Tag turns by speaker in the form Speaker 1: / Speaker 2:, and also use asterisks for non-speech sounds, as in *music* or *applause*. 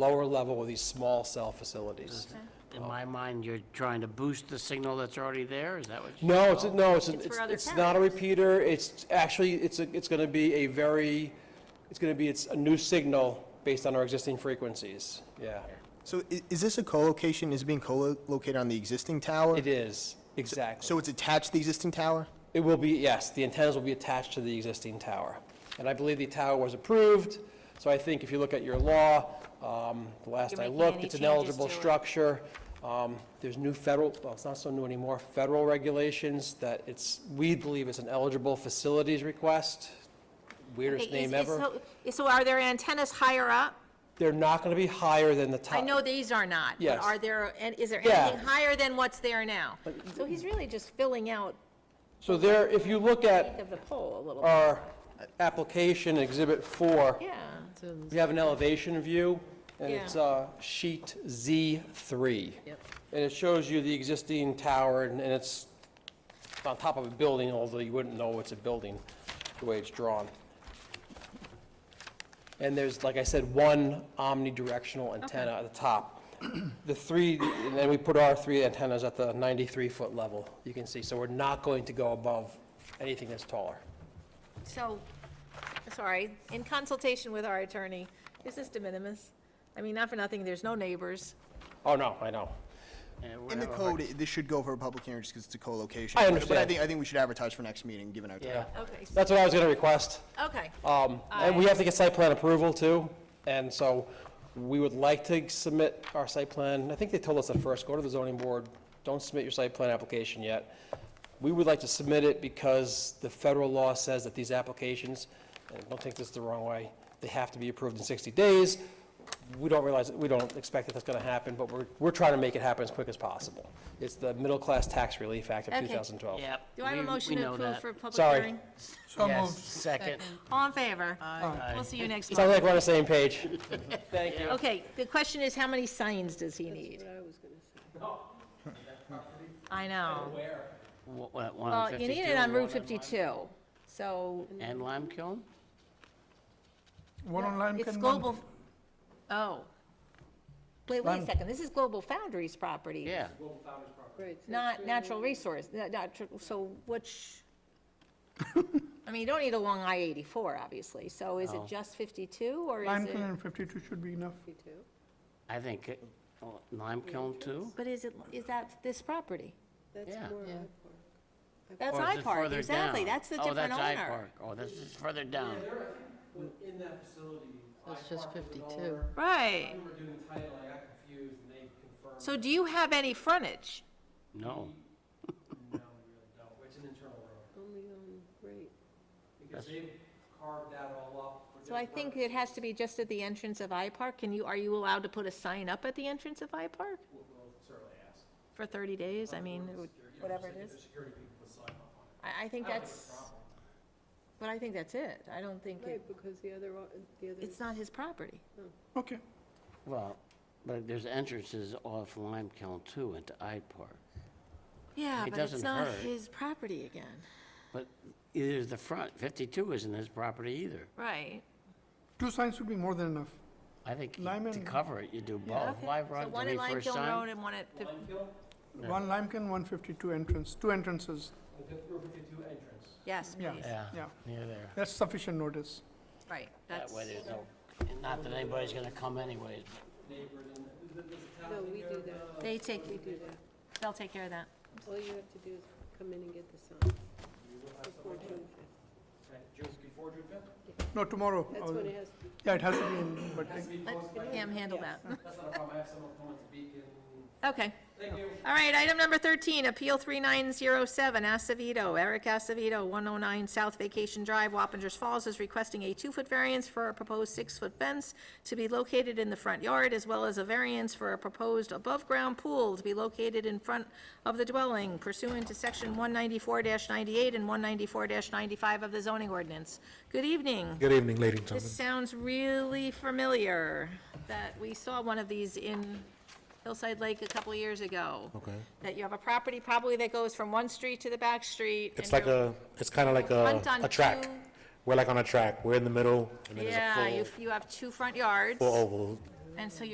Speaker 1: lower level of these small cell facilities.
Speaker 2: In my mind, you're trying to boost the signal that's already there, is that what you?
Speaker 1: No, it's, no, it's, it's,
Speaker 3: for other
Speaker 1: it's not a repeater, it's actually, it's, a- it's gonna be a very, it's gonna be, it's a new signal based on our existing frequencies, yeah.
Speaker 4: So i- is this a co-location, is it being co-located on the existing tower?
Speaker 1: It is, exactly.
Speaker 4: So it's attached to the existing tower?
Speaker 1: It will be, yes, the antennas will be attached to the existing tower. And I believe the tower was approved, so I think if you look at your law, um, the last
Speaker 3: You're
Speaker 1: I
Speaker 3: making
Speaker 1: looked,
Speaker 3: any
Speaker 1: it's an
Speaker 3: changes
Speaker 1: eligible
Speaker 3: to it?
Speaker 1: structure. Um, There's new federal, well, it's not so new anymore, federal regulations that it's, we believe it's an eligible facilities request, weirdest
Speaker 3: Okay, is-
Speaker 1: name
Speaker 3: is-
Speaker 1: ever.
Speaker 3: so- So are there antennas higher up?
Speaker 1: They're not going to be higher than the top.
Speaker 3: I know these are not. but
Speaker 1: Yes.
Speaker 3: Are there, and is there
Speaker 1: Yeah.
Speaker 3: anything higher than what's there now? So he's really just filling out
Speaker 1: So there, if you look
Speaker 3: the
Speaker 1: at
Speaker 3: of the pole a little.
Speaker 1: our application exhibit four,
Speaker 3: Yeah,
Speaker 1: We have an elevation view, and it's
Speaker 3: Yeah.
Speaker 1: uh, sheet Z3.
Speaker 3: Yep.
Speaker 1: And it shows you the existing tower, and and it's on top of a building, although you wouldn't know it's a building, the way it's drawn. And there's, like I said, one omnidirectional antenna at the top. The three, and then we put our three antennas at the 93-foot level, you can see. So we're not going to go above anything that's taller.
Speaker 3: so, sorry, in consultation with our attorney, is this de minimis? I mean, not for nothing, there's no neighbors.
Speaker 1: Oh, no, I know.
Speaker 2: Yeah, we're
Speaker 4: In the
Speaker 2: having a hard-
Speaker 4: code, it- this should go for a public hearing just because it's a co-location.
Speaker 1: I
Speaker 4: But- But I
Speaker 1: understand.
Speaker 4: think, I think we should advertise for next meeting, given our
Speaker 1: Yeah.
Speaker 4: time.
Speaker 3: Okay, s-
Speaker 1: That's what I was going to request.
Speaker 3: okay.
Speaker 1: Um, And we have to get site plan approval too, and so we would like to submit our site plan. I think they told us at first, go to the zoning board, don't submit your site plan application yet. We would like to submit it because the federal law says that these applications, and don't take this the wrong way, they have to be approved in 60 days. We don't realize, we don't expect that that's going to happen, but we're, we're trying to make it happen as quick as possible. It's the Middle Class Tax Relief Act of
Speaker 3: Okay.
Speaker 1: 2012.
Speaker 2: Yep.
Speaker 3: Do I have
Speaker 2: we-
Speaker 3: a motion
Speaker 2: we
Speaker 3: to
Speaker 2: know
Speaker 3: approve
Speaker 2: that.
Speaker 3: for public
Speaker 1: Sorry.
Speaker 3: hearing?
Speaker 2: Yes, second.
Speaker 3: All in favor? We'll see you next
Speaker 1: Sounds
Speaker 3: month.
Speaker 1: like we're on the same page. Thank you.
Speaker 3: Okay, the question is, how many signs does he need? I know.
Speaker 2: W- w- One on
Speaker 3: Well, Uh, you
Speaker 2: 52
Speaker 3: need it on
Speaker 2: and
Speaker 3: Route
Speaker 2: one
Speaker 3: 52, so
Speaker 2: And Lime Kiln?
Speaker 5: One on Lime
Speaker 3: it's
Speaker 5: Kiln, one-
Speaker 3: global, oh. Wait, wait a second, this is Global Foundries property.
Speaker 2: Yeah,
Speaker 3: Not natural resource, not- not tr- so
Speaker 5: *laughs*
Speaker 3: which, I mean, you don't need a long I-84, obviously, so is it just 52, or is
Speaker 5: Lime Kiln
Speaker 3: it?
Speaker 5: and 52 should be enough.
Speaker 2: I think it- oh, Lime Kiln too?
Speaker 3: But is it, is that this property?
Speaker 2: Yeah.
Speaker 3: That's
Speaker 2: Or is
Speaker 3: I
Speaker 2: it
Speaker 3: Park,
Speaker 2: further
Speaker 3: exactly,
Speaker 2: down?
Speaker 3: that's the
Speaker 2: Oh,
Speaker 3: different
Speaker 2: that's I
Speaker 3: owner.
Speaker 2: Park. Oh, this is further down.
Speaker 1: In that facility.
Speaker 6: That's just 52.
Speaker 3: Right,
Speaker 1: were doing title, I got confused, and they confirmed,
Speaker 3: so do you have any frontage?
Speaker 2: No,
Speaker 1: no, we really don't, it's an internal road. Only on, right. Because they carved that all up for
Speaker 3: So I think it has to be just at the entrance of I-Park. Can you, are you allowed to put a sign up at the entrance of I-Park? For 30 days? I mean, it would- whatever it is. I, I think that's, but I think that's it. I don't think, it-
Speaker 7: Right, because the other, o- the other,
Speaker 3: it's not his property.
Speaker 5: Okay.
Speaker 2: well, but there's entrances off Lime Kiln too into I Park.
Speaker 3: Yeah,
Speaker 2: It
Speaker 3: but it's
Speaker 2: doesn't
Speaker 3: not
Speaker 2: hurt.
Speaker 3: his property again.
Speaker 2: But either the front, 52 isn't his property either.
Speaker 3: Right.
Speaker 5: Two signs would be more than enough.
Speaker 2: I think you-
Speaker 5: Lime
Speaker 2: to
Speaker 5: and-
Speaker 2: cover it, you do both.
Speaker 3: Okay.
Speaker 2: Why
Speaker 3: So
Speaker 2: run
Speaker 3: one
Speaker 2: three
Speaker 3: at Lime
Speaker 2: first
Speaker 3: Kiln Road
Speaker 2: time?
Speaker 3: and one at, fif-
Speaker 5: One Lime Kiln, one 52 entrance, two entrances.
Speaker 1: entrance.
Speaker 3: yes,
Speaker 5: Yeah.
Speaker 3: please.
Speaker 2: Yeah,
Speaker 5: Yeah.
Speaker 2: near there.
Speaker 5: That's sufficient notice.
Speaker 3: Right,
Speaker 2: That
Speaker 3: that's,
Speaker 2: way there's no, not that anybody's gonna come anyways, but
Speaker 7: no, we do that,
Speaker 3: they take,
Speaker 7: we do that.
Speaker 3: they'll take care of that.
Speaker 7: All you have to do is come in and get the sign. Before June fifth.
Speaker 5: No, tomorrow.
Speaker 7: That's
Speaker 5: I'll-
Speaker 7: when it has to be.
Speaker 5: Yeah, it has to be in, but I-
Speaker 3: Let him handle that.
Speaker 1: That's not a problem, I have someone come to Beacon.
Speaker 3: Okay.
Speaker 1: Thank you.
Speaker 3: All right, item number 13, Appeal 3907, Acevedo, Eric Acevedo, 109 South Vacation Drive, Wappingers Falls, is requesting a two-foot variance for a proposed six-foot fence to be located in the front yard, as well as a variance for a proposed above-ground pool to be located in front of the dwelling pursuant to Section 194-98 and 194-95 of the zoning ordinance. Good evening.
Speaker 8: Good evening, ladies and
Speaker 3: This
Speaker 8: gentlemen.
Speaker 3: sounds really familiar, that we saw one of these in Hillside Lake a couple years ago.
Speaker 8: Okay.
Speaker 3: That you have a property probably that goes from one street to the back street. and
Speaker 8: It's like
Speaker 3: you're-
Speaker 8: a, it's kind of like a, uh,
Speaker 3: front on
Speaker 8: a track.
Speaker 3: two.
Speaker 8: We're like on a track. We're in the middle, and then
Speaker 3: Yeah,
Speaker 8: there's a
Speaker 3: you,
Speaker 8: full,
Speaker 3: you have two front yards,
Speaker 8: full oval.
Speaker 3: and so